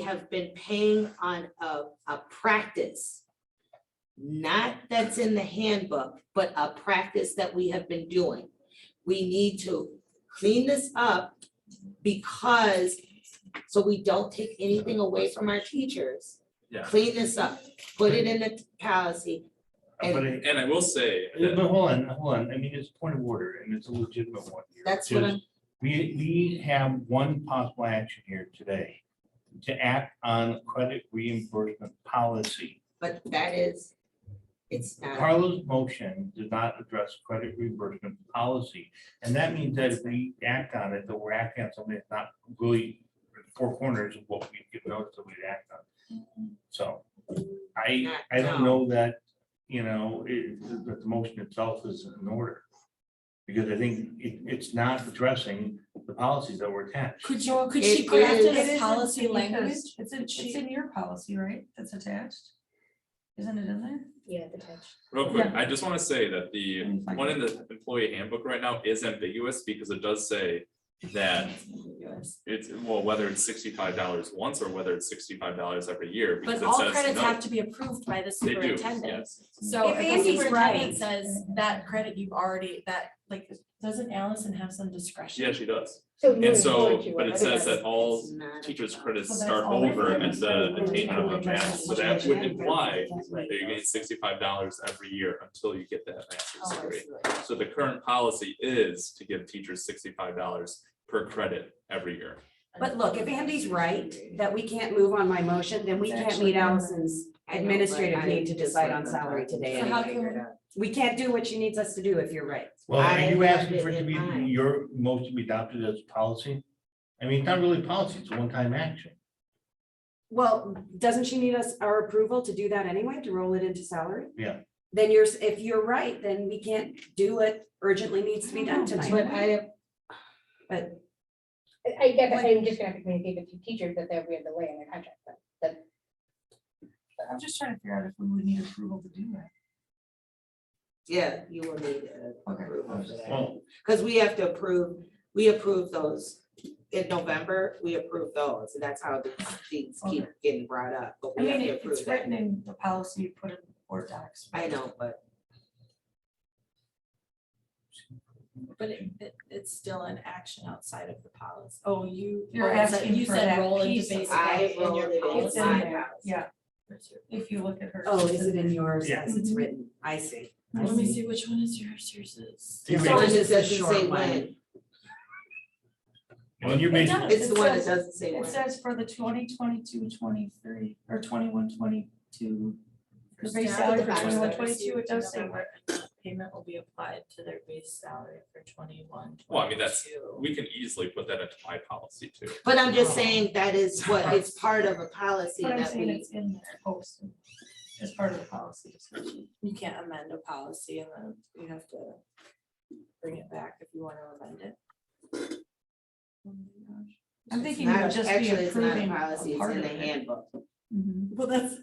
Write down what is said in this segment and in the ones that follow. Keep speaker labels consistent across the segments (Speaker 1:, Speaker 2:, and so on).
Speaker 1: have been paying on a, a practice. Not that's in the handbook, but a practice that we have been doing. We need to clean this up because, so we don't take anything away from our teachers.
Speaker 2: Yeah.
Speaker 1: Clean this up, put it in the policy.
Speaker 3: Uh, But it,
Speaker 2: And I will say
Speaker 3: uh,
Speaker 2: that,
Speaker 3: but hold on, hold on, I mean, it's a point of order and it's a legitimate one. here,
Speaker 1: That's
Speaker 3: which
Speaker 1: what
Speaker 3: is
Speaker 1: I'm,
Speaker 3: We, we have one possible action here today to act on credit reimbursement policy.
Speaker 1: but that is, it's not,
Speaker 3: Carlos' motion did not address credit reimbursement policy. And that means that if we act on it, that we're acting on something that's not really four corners of what we give notice that we'd act on. So I, I don't know that, you know, it, that the motion itself is in order. Because I think it, it's not addressing the policies that were attached.
Speaker 4: Could you, could
Speaker 1: It
Speaker 4: she craft
Speaker 1: is-
Speaker 4: it
Speaker 1: It
Speaker 4: as
Speaker 5: isn't
Speaker 4: policy
Speaker 5: because
Speaker 4: language?
Speaker 5: It's, in-
Speaker 4: Could
Speaker 5: it's
Speaker 4: she-
Speaker 5: in your policy, right, that's attached? Isn't it in there?
Speaker 6: Yeah, the touch.
Speaker 2: real quick,
Speaker 5: Yeah.
Speaker 2: I just wanna say that the
Speaker 5: Let me find
Speaker 2: one
Speaker 5: it.
Speaker 2: in the employee handbook right now is ambiguous because it does say that it's, well, whether it's sixty-five dollars once or whether it's sixty-five dollars every year, because
Speaker 4: But
Speaker 2: it
Speaker 4: all
Speaker 2: says
Speaker 4: credits have
Speaker 2: no.
Speaker 4: to be approved by the
Speaker 2: They do,
Speaker 4: superintendent.
Speaker 2: yes.
Speaker 4: So
Speaker 5: If
Speaker 4: if the
Speaker 5: Andy's
Speaker 4: superintendent
Speaker 5: right-
Speaker 4: says that credit you've already, that, like, doesn't Allison have some discretion?
Speaker 2: Yeah, she does.
Speaker 6: So
Speaker 2: And so, but it says that all
Speaker 1: it's not.
Speaker 2: teachers'
Speaker 1: about-
Speaker 2: credits
Speaker 5: Well, that's
Speaker 2: start
Speaker 5: all right.
Speaker 2: over at the attainment of a max, so that would imply that you're getting sixty-five dollars every year until you get that
Speaker 1: Oh,
Speaker 2: master's
Speaker 1: I
Speaker 2: degree.
Speaker 1: see what you're
Speaker 2: So the current policy is to give teachers sixty-five dollars per credit every year.
Speaker 7: But look, if Andy's right, that we can't move on my motion, then we
Speaker 5: It's
Speaker 7: can't
Speaker 5: actually
Speaker 7: meet
Speaker 5: in there.
Speaker 1: I
Speaker 7: Allison's
Speaker 1: know, but
Speaker 7: administrative
Speaker 1: I
Speaker 7: need to
Speaker 1: just
Speaker 7: decide on
Speaker 1: wasn't
Speaker 7: salary
Speaker 1: about to
Speaker 7: today
Speaker 4: So how
Speaker 7: anyway.
Speaker 4: can we-
Speaker 7: We can't do what she needs us to do if you're right.
Speaker 3: Well, are
Speaker 1: I
Speaker 3: you
Speaker 1: have
Speaker 3: asking
Speaker 1: it
Speaker 3: for it to
Speaker 1: in
Speaker 3: be,
Speaker 1: mind.
Speaker 3: your motion to be adopted as policy? I mean, it's not really policy, it's a one-time action.
Speaker 7: Well, doesn't she need us, our approval to do that anyway, to roll it into salary?
Speaker 3: Yeah.
Speaker 7: Then you're, s- if you're right, then we can't do what urgently needs to be done
Speaker 1: But
Speaker 7: tonight.
Speaker 1: I,
Speaker 6: I I get that, I'm just gonna have to communicate with the teachers that they're, we have the way in their contract, but that,
Speaker 5: I'm just trying to figure out if we would need approval to do that.
Speaker 1: yeah, you will need uh,
Speaker 5: Okay.
Speaker 1: approval for that.
Speaker 3: Well,
Speaker 1: Because we have to approve, we approve those in November, we approve those, and that's how the things keep getting brought up, but
Speaker 5: I
Speaker 1: we have
Speaker 5: mean,
Speaker 1: to
Speaker 5: it-
Speaker 1: approve
Speaker 5: it's
Speaker 1: that.
Speaker 5: written in the policy, you put it in board docs.
Speaker 1: I know, but
Speaker 4: But it, it, it's still an action outside of the policy. Oh, you.
Speaker 5: You're
Speaker 4: oh, is that-
Speaker 5: asking
Speaker 4: you
Speaker 5: for
Speaker 4: said
Speaker 5: that
Speaker 4: roll into
Speaker 5: piece of-
Speaker 4: basic
Speaker 1: I
Speaker 4: in
Speaker 1: rolled
Speaker 4: your
Speaker 1: it in
Speaker 4: policy.
Speaker 5: It's in
Speaker 1: my
Speaker 5: there.
Speaker 1: house.
Speaker 5: Yeah. If you look at her.
Speaker 7: Oh, is it in yours
Speaker 3: Yeah.
Speaker 7: as
Speaker 5: Mm-hmm.
Speaker 7: it's written? I see. I
Speaker 4: Let me
Speaker 7: see.
Speaker 4: see which one is yours, yours is.
Speaker 3: you
Speaker 1: So it
Speaker 3: made-
Speaker 1: just
Speaker 7: It's a
Speaker 1: doesn't
Speaker 7: short
Speaker 1: say
Speaker 7: one.
Speaker 1: when,
Speaker 3: I mean, you made,
Speaker 5: It
Speaker 1: it's the one that
Speaker 5: says-
Speaker 1: doesn't say
Speaker 5: It
Speaker 1: when.
Speaker 5: says for the 2022-23 or 21-22 the base
Speaker 4: Staff
Speaker 5: salary
Speaker 1: of
Speaker 5: for
Speaker 1: the
Speaker 5: twenty one,
Speaker 4: bachelor's
Speaker 5: twenty two, it does say.
Speaker 4: November uh, Payment will be applied to their base salary for twenty-one, twenty-two.
Speaker 2: Well, I mean, that's- We can easily put that into my policy too.
Speaker 1: But I'm
Speaker 7: Oh.
Speaker 1: just saying that is what, it's part of a policy
Speaker 5: But I'm
Speaker 1: that
Speaker 5: saying
Speaker 1: we,
Speaker 5: it's in there posted as part of the policy discussion.
Speaker 4: You can't amend a policy and then you have to bring it back if you want to amend it. Oh my gosh.
Speaker 5: I'm thinking it would
Speaker 1: not,
Speaker 5: just
Speaker 1: actually,
Speaker 5: be
Speaker 1: it's not a
Speaker 5: approving
Speaker 1: policy,
Speaker 5: a
Speaker 1: it's
Speaker 5: part
Speaker 1: in
Speaker 5: of
Speaker 1: the
Speaker 5: it.
Speaker 1: handbook.
Speaker 5: Mhm.
Speaker 4: Well, that's,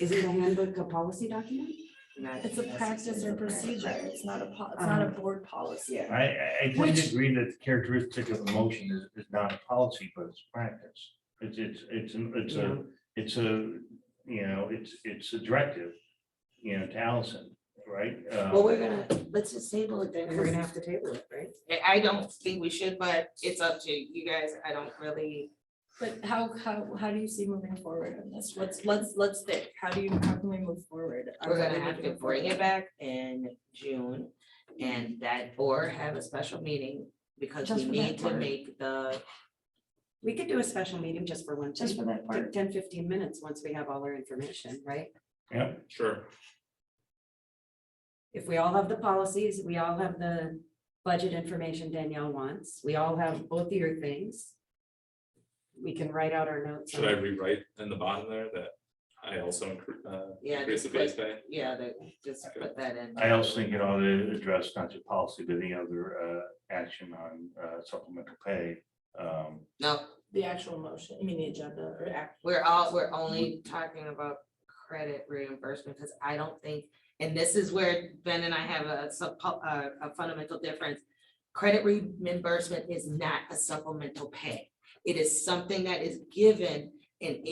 Speaker 7: Isn't the handbook a policy document?
Speaker 1: not
Speaker 4: it's a practice Um, or
Speaker 1: necessarily a
Speaker 4: procedure,
Speaker 1: practice.
Speaker 4: it's not a, po- it's not a board policy.
Speaker 1: Yeah.
Speaker 3: I, I- I
Speaker 4: Which-
Speaker 3: didn't agree that the characteristic of a motion is, is not a policy, but it's practice. It's, it's, it's, an- it's a, it's a, you know, it's, it's a directive, you know, to Allison, right? Uh,
Speaker 1: Well, we're gonna, let's just table it then,
Speaker 7: We're gonna
Speaker 1: 'cause
Speaker 7: have to table it, right?
Speaker 1: I I don't think we should, but it's up to you guys, I don't really.
Speaker 4: But how, how, how do you see moving forward on this? Let's, let's, let's think, how do you, how can we move forward?
Speaker 1: We're gonna have to bring it back in June and that, or have a special meeting because
Speaker 5: Just for
Speaker 1: we
Speaker 5: that
Speaker 1: need to
Speaker 5: part.
Speaker 1: make the,
Speaker 7: We could do a special meeting just for one,
Speaker 5: Just
Speaker 7: just
Speaker 5: for that part.
Speaker 7: 10, 15 minutes, once we have all our information, right?
Speaker 3: Yep,
Speaker 2: Sure.
Speaker 7: If we all have the policies, we all have the budget information Danielle wants, we all have both of your things. We can write out our notes.
Speaker 2: Should I rewrite in the bottom there that I also incre- uh,
Speaker 1: Yeah,
Speaker 2: increase the
Speaker 1: just
Speaker 2: base pay?
Speaker 1: yeah, the, just put that in.
Speaker 3: I also think it ought to address not just policy, but any other, uh, action on, uh, supplemental pay. Um,
Speaker 1: No,
Speaker 4: The actual motion, I mean, the agenda or act.
Speaker 1: we're all, we're only talking about credit reimbursement, because I don't think, and this is where Ben and I have a sub, a, a fundamental difference. Credit reimbursement is not a supplemental pay. It is something that is given in